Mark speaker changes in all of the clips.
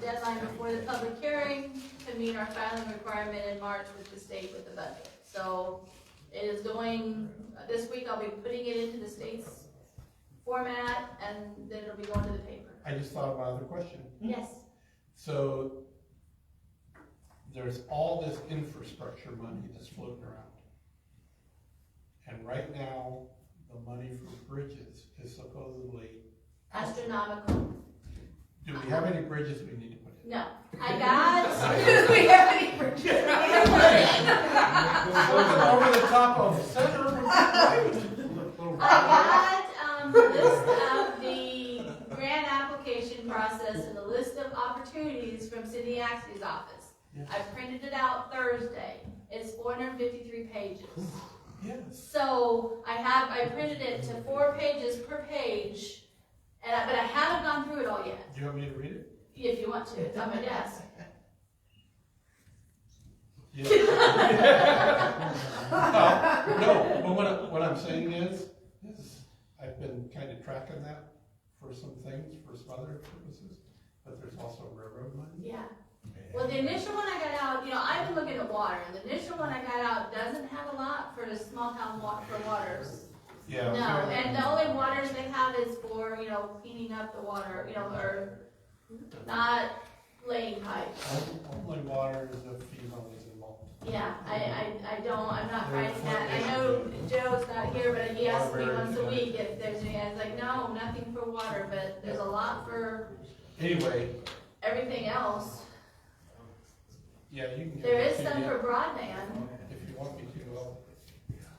Speaker 1: deadline before the public hearing to meet our filing requirement in March with the state with the budget. So it is going, this week I'll be putting it into the state's format and then it'll be going to the paper.
Speaker 2: I just thought of my other question.
Speaker 1: Yes,
Speaker 2: So there's all this infrastructure money that's floating around. And right now, the money for bridges is supposedly,
Speaker 1: astronomical.
Speaker 2: do we have any bridges we need to put in?
Speaker 1: No, I got, we have any purchase.
Speaker 2: We're looking Over the top of center. right?
Speaker 1: I got, um, the list of the grant application process and the list of opportunities from Cindy Axie's office. I printed it out Thursday, it's four hundred and fifty-three pages.
Speaker 2: Yes.
Speaker 1: So I have, I printed it to four pages per page, and I, but I haven't gone through it all yet,
Speaker 2: Do you want me to read it?
Speaker 1: if you want to, it's on my desk.
Speaker 2: Uh, No, but what, I- what I'm saying is, is I've been kind of tracking that for some things, for some other purposes, but there's also railroad money.
Speaker 1: Yeah, well, the initial one I got out, you know, I've been looking at water, and the initial one I got out doesn't have a lot for the small town wa, for waters.
Speaker 2: Yeah.
Speaker 1: No,
Speaker 2: okay.
Speaker 1: and uh, the only waters they have is for, you know, cleaning up the water, you know, or not laying pipes.
Speaker 2: Only water is a female is involved.
Speaker 1: Yeah, I, I, I don't, I'm not writing that, I know Joe's not here, but he asks me once a week if there's any, I was like, no, nothing for water, but there's a lot for
Speaker 2: Anyway,
Speaker 1: everything else.
Speaker 2: yeah, you can. get
Speaker 1: There is
Speaker 2: the
Speaker 1: some
Speaker 2: PDF
Speaker 1: for broadband,
Speaker 2: If you want me to, I'll-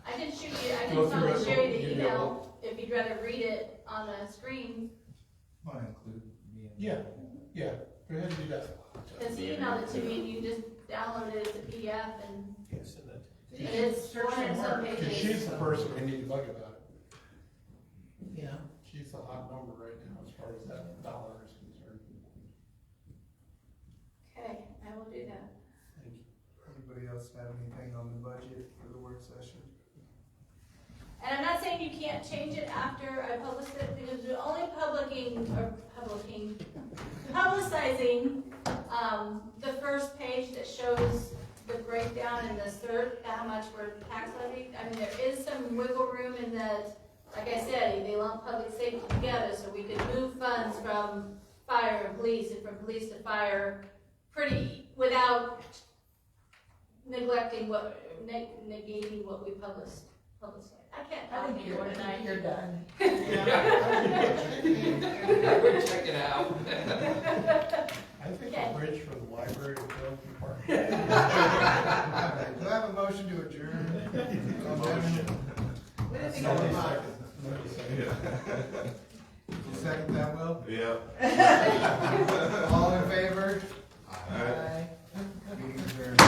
Speaker 1: I can shoot you, I
Speaker 2: Well,
Speaker 1: can
Speaker 2: if you
Speaker 1: probably
Speaker 2: read-
Speaker 1: share you
Speaker 2: give
Speaker 1: the
Speaker 2: me a
Speaker 1: email if you'd rather read it on the screen,
Speaker 3: Might include me and.
Speaker 2: Yeah. yeah, go ahead and do that.
Speaker 1: cause he emailed it to me and you just downloaded it as a PDF and And it's
Speaker 4: Search
Speaker 1: one and
Speaker 4: and
Speaker 1: some
Speaker 4: work.
Speaker 2: Cause
Speaker 1: pages.
Speaker 2: she's the person we need to bug about it.
Speaker 4: Yeah,
Speaker 2: She's the hot number right now as far as that dollar is concerned.
Speaker 1: Okay, I will do that.
Speaker 2: Thank you.
Speaker 3: Anybody else have anything on the budget for the work session?
Speaker 1: And I'm not saying you can't change it after I publish it, because we're only publishing, or publishing, publicizing, um, the first page that shows the breakdown and the third, how much we're tax levy. I mean, there is some wiggle room in that, like I said, they lump public safety together, so we could move funds from fire and police, and from police to fire, pretty, without neglecting what, neg- negating what we published. Public safety. I can't,
Speaker 4: I
Speaker 1: I
Speaker 4: think
Speaker 1: don't
Speaker 4: you're,
Speaker 1: hear what I
Speaker 4: you're
Speaker 1: hear.
Speaker 4: done.
Speaker 5: We're checking out.
Speaker 2: I think
Speaker 1: Okay.
Speaker 2: a bridge for the library would go to park.
Speaker 3: Alright, Do I have a motion to adjourn? Motion.
Speaker 4: We didn't think
Speaker 2: Nobody
Speaker 4: of a lot.
Speaker 2: second- nobody second.
Speaker 3: You second that, Will?
Speaker 6: Yeah.
Speaker 3: All in favor?
Speaker 4: Bye.
Speaker 3: Meeting adjourned.